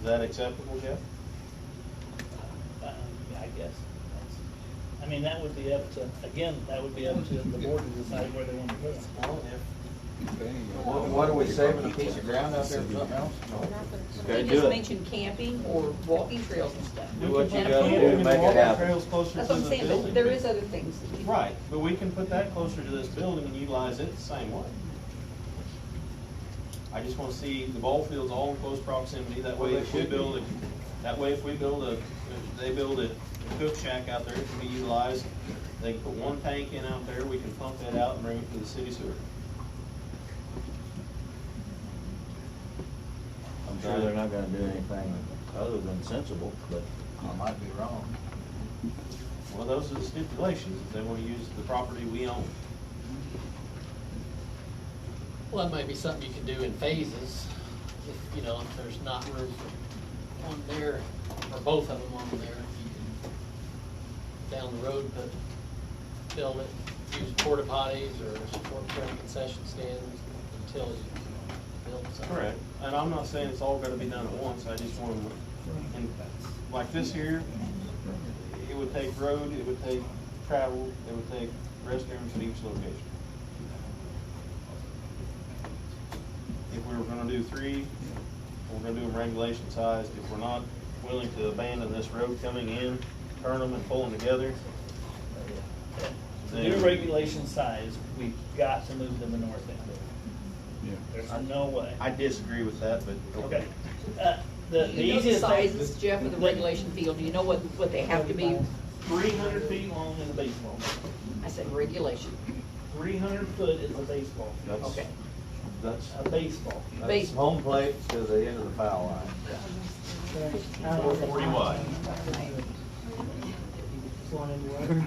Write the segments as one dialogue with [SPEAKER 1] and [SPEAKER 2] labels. [SPEAKER 1] Is that acceptable, Jeff?
[SPEAKER 2] Um, I guess. that's- I mean, that would be up to, again, that would be up to the board to decide where they want to put it.
[SPEAKER 1] Well, if.
[SPEAKER 3] What what are we saving, a piece of ground out there for something else?
[SPEAKER 1] Okay,
[SPEAKER 4] They
[SPEAKER 1] do
[SPEAKER 4] just
[SPEAKER 1] it.
[SPEAKER 4] mentioned camping or walking trails and stuff.
[SPEAKER 1] Do what you
[SPEAKER 4] And a
[SPEAKER 1] gotta
[SPEAKER 4] pool.
[SPEAKER 1] do to make
[SPEAKER 3] Walking
[SPEAKER 1] it happen.
[SPEAKER 3] trails
[SPEAKER 4] That's what I'm saying, but there is other things. that you-
[SPEAKER 1] Right, but we can put that closer to this building and utilize it the same way. I just wanna see the ball fields all in close proximity, that way
[SPEAKER 3] Well, they
[SPEAKER 1] if we
[SPEAKER 3] should be.
[SPEAKER 1] build a, that way if we build a, if they build a cook shack out there, it can be utilized. They can put one tank in out there, we can pump that out and bring it to the city sewer.
[SPEAKER 5] I'm sure they're not gonna do anything other than sensible, but
[SPEAKER 3] I might be wrong.
[SPEAKER 1] Well, those are the stipulations, if they wanna use the property we own.
[SPEAKER 6] Well, that might be something you could do in phases, if, you know, if there's not room for one there, or both of them on there. you can Down the road, but build it, use porta potties or support for a concession stand until you build something.
[SPEAKER 1] Correct, and I'm not saying it's all gonna be done at once, I just want to, and like this here, it would take road, it would take travel, it would take restrooms at each location. If we were gonna do three, we're gonna do them regulation sized, if we're not willing to abandon this road coming in, turn them and pull them together,
[SPEAKER 2] New regulation size, we've got to move to the north end. There's no way.
[SPEAKER 1] I disagree with that, but
[SPEAKER 2] Okay. Uh, The the
[SPEAKER 4] You know the
[SPEAKER 2] easiest
[SPEAKER 4] sizes,
[SPEAKER 2] thing,
[SPEAKER 4] Jeff, of the regulation field, you know what, what they have to be,
[SPEAKER 2] three hundred feet long is a baseball.
[SPEAKER 4] I said regulation,
[SPEAKER 2] Three hundred foot is a baseball.
[SPEAKER 5] that's,
[SPEAKER 4] okay.
[SPEAKER 5] that's,
[SPEAKER 2] A baseball.
[SPEAKER 5] that's
[SPEAKER 4] Base-
[SPEAKER 5] home plate to the end of the foul line.
[SPEAKER 1] four forty wide.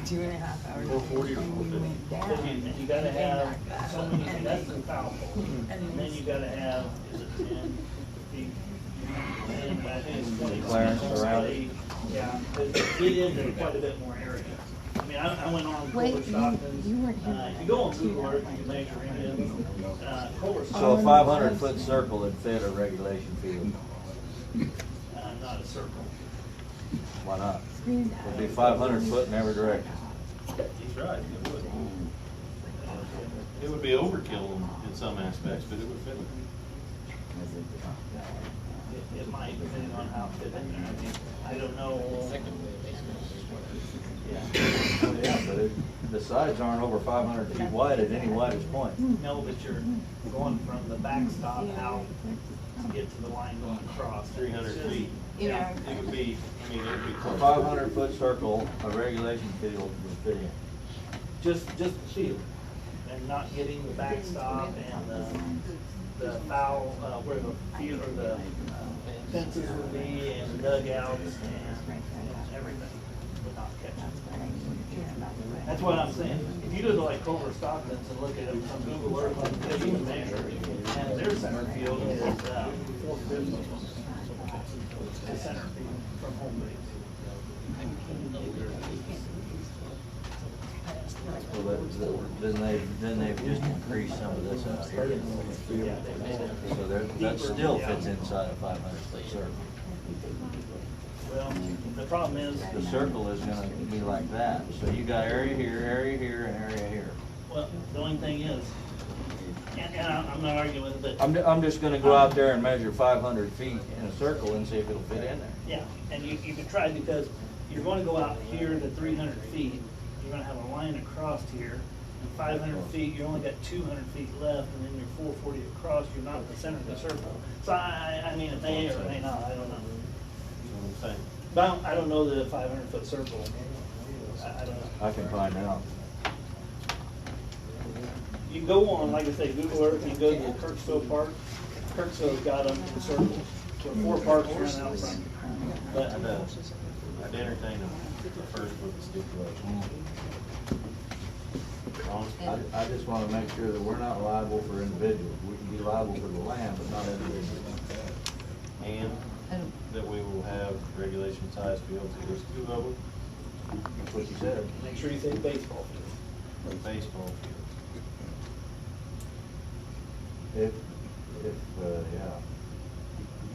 [SPEAKER 7] Two and a half hours.
[SPEAKER 1] Four forty or four fifty?
[SPEAKER 2] So you, you gotta have so many, feet, that's the foul pole. And then you gotta have, is it ten feet? And I think it's twenty.
[SPEAKER 5] Clearance around it.
[SPEAKER 2] Yeah, it it is quite a bit more area. I mean, I, I went on
[SPEAKER 7] Wait,
[SPEAKER 2] Culver
[SPEAKER 7] you-
[SPEAKER 2] Stockton's.
[SPEAKER 7] you weren't here
[SPEAKER 2] Uh, If you go on Google Earth, you can measure it, uh, Culver
[SPEAKER 5] So a
[SPEAKER 2] Stockton's,
[SPEAKER 5] five hundred foot circle would fit a regulation field,
[SPEAKER 2] uh, not a circle.
[SPEAKER 5] why not? It'd be five hundred foot in every direction.
[SPEAKER 1] He's right, it would. It would be overkill in- in some aspects, but it would fit.
[SPEAKER 2] It, it might, depending on how fit in there. I mean, I don't know.
[SPEAKER 6] Secondly, a baseball is what
[SPEAKER 2] Yeah.
[SPEAKER 5] Well, Yeah, but it, the sides aren't over five hundred feet wide at any widest point.
[SPEAKER 2] No, but you're going from the backstop out to get to the line going across.
[SPEAKER 1] 300
[SPEAKER 2] It's just-
[SPEAKER 1] feet.
[SPEAKER 2] Yeah.
[SPEAKER 1] It would be, I mean, it would be
[SPEAKER 5] A
[SPEAKER 1] close.
[SPEAKER 5] five hundred foot circle, a regulation field would fit in. Just, just the field.
[SPEAKER 2] And not getting the backstop and the, the foul, uh, where the field or the uh, fences would be and the dugouts and everything would not catch it. That's what I'm saying. If you go to like Culver Stockton's and look at it from Google Earth, like, they even measure, it. and their center field is, uh, four fifty. The center field from home base.
[SPEAKER 5] Well, that- that- Then they, then they've just increased some of this out here. So there, that still fits inside a five hundred foot circle.
[SPEAKER 2] Well, the problem is,
[SPEAKER 5] The circle is gonna be like that, so you got area here, area here, and area here.
[SPEAKER 2] well, the only thing is, and, and I'm I'm not arguing, but,
[SPEAKER 5] I'm, ju- I'm just gonna go out there and measure five hundred feet in a circle and see if it'll fit in there.
[SPEAKER 2] yeah, and you, you could try because you're gonna go out here to three hundred feet, you're gonna have a line across here, and five hundred feet, you only got two hundred feet left, and then you're four forty across, you're not in the center of the circle. So I, I, I mean, it may or may not, I don't know.
[SPEAKER 1] You know what I'm saying?
[SPEAKER 2] But I don't, I don't know the five hundred foot circle. I, I don't know.
[SPEAKER 5] I can find out.
[SPEAKER 2] You can go on, like I say, Google Earth, you go to the Kirksville Park, Kirksville's got them in circles, where four parks run out from. But,
[SPEAKER 1] I'd, uh, I'd entertain them first with the stipulation. Honest-
[SPEAKER 5] I, I just wanna make sure that we're not liable for individuals. We can be liable for the land, but not individuals.
[SPEAKER 1] And that we will have regulation sized fields, if there's two of them,
[SPEAKER 5] That's what you said.
[SPEAKER 2] make sure you say baseball field.
[SPEAKER 1] and baseball fields.
[SPEAKER 5] If, if, uh, yeah.